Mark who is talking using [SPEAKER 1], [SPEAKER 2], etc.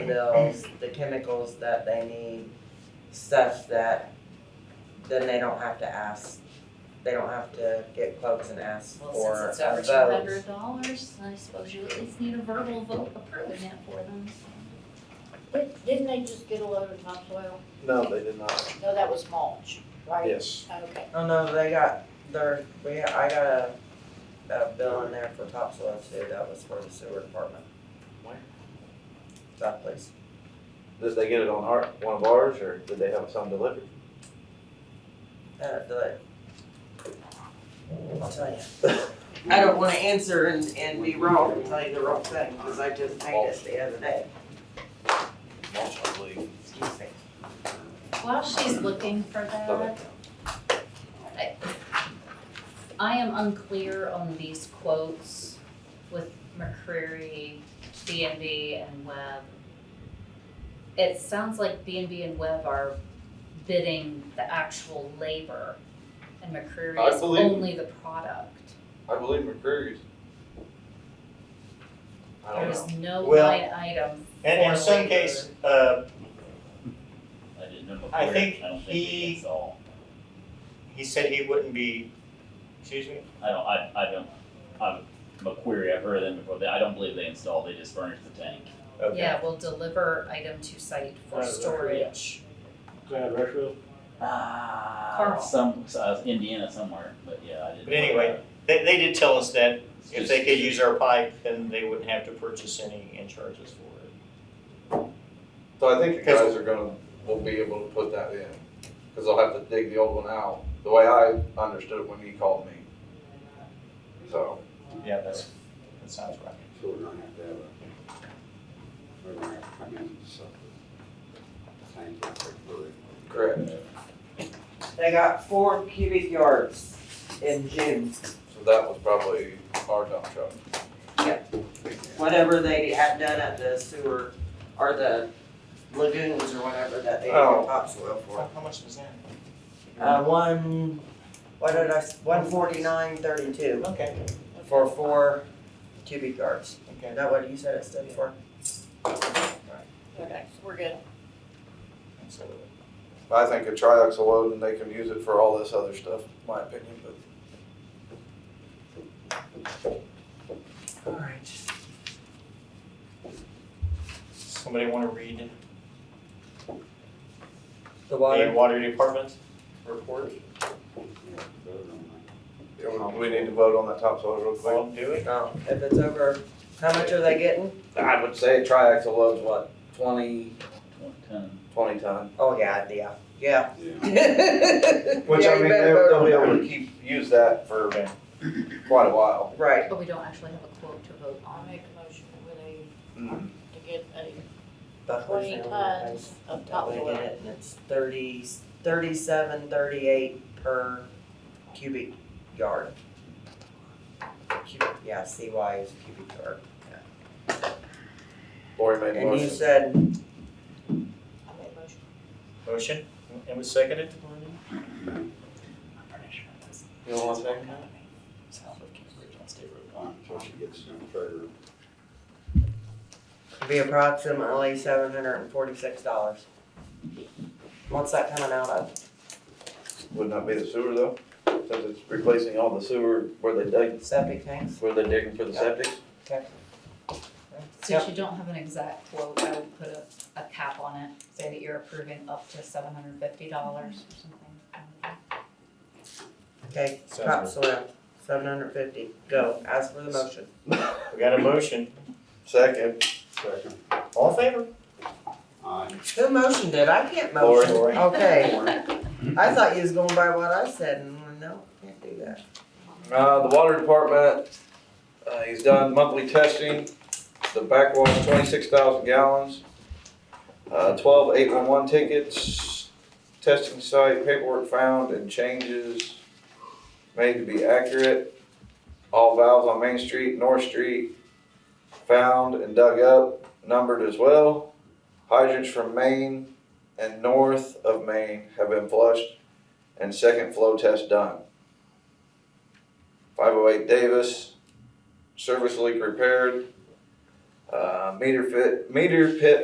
[SPEAKER 1] bills, the chemicals that they need, stuff that then they don't have to ask, they don't have to get quotes and ask
[SPEAKER 2] Well,
[SPEAKER 1] for
[SPEAKER 2] since it's
[SPEAKER 1] a
[SPEAKER 2] over
[SPEAKER 1] vote.
[SPEAKER 3] Two hundred dollars, I suppose you at least need a verbal vote approving it for them.
[SPEAKER 4] Didn't didn't they just get a load of topsoil?
[SPEAKER 5] No, they did not.
[SPEAKER 4] No, that was mulch, right?
[SPEAKER 5] Yes.
[SPEAKER 4] Okay,
[SPEAKER 1] Oh no, they got their, we, I got a, a bill in there for topsoil too, that was for the sewer department.
[SPEAKER 5] Where?
[SPEAKER 1] That place.
[SPEAKER 5] Did they get it on our, one of ours, or did they have some delivered?
[SPEAKER 1] Uh, the, I'll tell you. I don't wanna answer and, and be wrong and tell you the wrong thing, cause I just made it the other day,
[SPEAKER 5] Mulch, I believe.
[SPEAKER 1] excuse me.
[SPEAKER 3] While she's looking for
[SPEAKER 5] Okay.
[SPEAKER 3] that, I am unclear on these quotes with McCreary, B and B and Webb. It sounds like B and B and Webb are bidding the actual labor and
[SPEAKER 5] I
[SPEAKER 3] McCreary is
[SPEAKER 5] believe-
[SPEAKER 3] only the product.
[SPEAKER 5] I believe McCreary's. I don't know.
[SPEAKER 3] There's no
[SPEAKER 6] Well,
[SPEAKER 3] line item
[SPEAKER 6] And in
[SPEAKER 3] for
[SPEAKER 6] some
[SPEAKER 3] labor.
[SPEAKER 6] case, uh,
[SPEAKER 7] I didn't know
[SPEAKER 6] I
[SPEAKER 7] before,
[SPEAKER 6] think
[SPEAKER 7] I don't think
[SPEAKER 6] he-
[SPEAKER 7] he gets all.
[SPEAKER 6] he said he wouldn't be, excuse me?
[SPEAKER 7] I don't, I, I don't, I'm, McQuarrie, I've heard of them before, They- I don't believe they install, they just furnish the tank.
[SPEAKER 6] Okay.
[SPEAKER 3] Yeah, we'll deliver item to site for
[SPEAKER 8] Right, right, yeah.
[SPEAKER 3] storage.
[SPEAKER 8] Glad Rushville.
[SPEAKER 7] Ah.
[SPEAKER 3] Carl.
[SPEAKER 7] Some, so I was Indiana somewhere, but yeah, I didn't.
[SPEAKER 6] But anyway, They, they did tell us that
[SPEAKER 7] It's
[SPEAKER 6] if
[SPEAKER 7] just-
[SPEAKER 6] they could use our pipe, then they wouldn't have to purchase any and charge us for it.
[SPEAKER 9] So I think the guys are gonna, will be able to put that in, cause they'll have to dig the old one out, the way I understood it when he called me. So,
[SPEAKER 6] Yeah, that's, that sounds right.
[SPEAKER 10] So we're gonna have to have a, we're gonna have to come in and suffer. Thank you for it.
[SPEAKER 9] correct,
[SPEAKER 1] They got four cubic yards in June,
[SPEAKER 9] so that was probably our dump truck.
[SPEAKER 1] whatever they had done at the sewer, or the lagoons or whatever that they did
[SPEAKER 9] Oh.
[SPEAKER 1] topsoil for.
[SPEAKER 6] How how much was that?
[SPEAKER 1] Uh, one, what did I, s- one forty-nine thirty-two
[SPEAKER 6] Okay,
[SPEAKER 1] for four cubic yards. Is
[SPEAKER 6] okay.
[SPEAKER 1] that what you said it stood for?
[SPEAKER 4] okay, so we're good.
[SPEAKER 6] Absolutely.
[SPEAKER 9] I think a triax will load and they can use it for all this other stuff, my opinion, but.
[SPEAKER 1] Alright.
[SPEAKER 6] Somebody wanna read
[SPEAKER 1] The
[SPEAKER 6] the
[SPEAKER 1] water,
[SPEAKER 6] water department report?
[SPEAKER 10] Yeah, vote on that.
[SPEAKER 9] We need to vote on that topsoil real quick.
[SPEAKER 6] Well, do it.
[SPEAKER 1] um, if it's over, how much are they getting?
[SPEAKER 9] I would say a triax will load's what, twenty,
[SPEAKER 7] Ton.
[SPEAKER 9] twenty ton?
[SPEAKER 1] Oh, yeah, yeah, yeah.
[SPEAKER 10] Yeah.
[SPEAKER 9] Which
[SPEAKER 1] Yeah,
[SPEAKER 9] I
[SPEAKER 1] you
[SPEAKER 9] mean,
[SPEAKER 1] better
[SPEAKER 9] they'll,
[SPEAKER 1] vote
[SPEAKER 9] they'll be
[SPEAKER 1] on
[SPEAKER 9] able to keep, use that for quite a while.
[SPEAKER 1] that. Right,
[SPEAKER 3] But we don't actually have a quote to vote
[SPEAKER 4] I
[SPEAKER 3] on.
[SPEAKER 4] make a motion with a,
[SPEAKER 9] Mm.
[SPEAKER 4] to get a
[SPEAKER 1] Buckley's
[SPEAKER 4] twenty
[SPEAKER 1] the only place.
[SPEAKER 4] tons of
[SPEAKER 1] That way I get
[SPEAKER 4] topsoil.
[SPEAKER 1] it, and it's thirty, thirty-seven, thirty-eight per cubic yard. Cubic, yeah, CY is cubic yard.
[SPEAKER 9] Lori made a
[SPEAKER 1] And you
[SPEAKER 9] motion.
[SPEAKER 1] said,
[SPEAKER 4] I made a motion.
[SPEAKER 6] Motion, and was seconded?
[SPEAKER 7] I'm pretty sure that's-
[SPEAKER 6] You all want second?
[SPEAKER 7] South of Cambridge on State Road
[SPEAKER 10] All right, so she gets some favor.
[SPEAKER 1] it'd be approximately seven hundred and forty-six dollars. What's that coming out of?
[SPEAKER 9] Wouldn't that be the sewer though? Since it's replacing all the sewer where they dig,
[SPEAKER 1] Septic tanks?
[SPEAKER 9] where they're digging for the septic?
[SPEAKER 3] Since you don't have an exact quote, I would put a, a cap on it, say that you're approving up to seven hundred fifty dollars or something.
[SPEAKER 1] Okay, top
[SPEAKER 6] Sounds
[SPEAKER 1] soil, seven hundred fifty, go, ask for the motion.
[SPEAKER 6] We got a motion.
[SPEAKER 9] Second,
[SPEAKER 10] Second.
[SPEAKER 6] All in favor?
[SPEAKER 10] Aye.
[SPEAKER 1] Who motioned it? I can't
[SPEAKER 9] Lori.
[SPEAKER 1] motion. Okay, I thought you was going by what I said, and no, can't do that.
[SPEAKER 9] uh, the water department, uh, he's done monthly testing. The backwash, twenty-six thousand gallons. Uh, twelve eight one one tickets, testing site, paperwork found and changes made to be accurate. All valves on Main Street, North Street found and dug up, numbered as well. Hydrants from Main and north of Main have been flushed and second flow test done. Five oh eight Davis, service leak repaired. Uh, meter fit, meter pit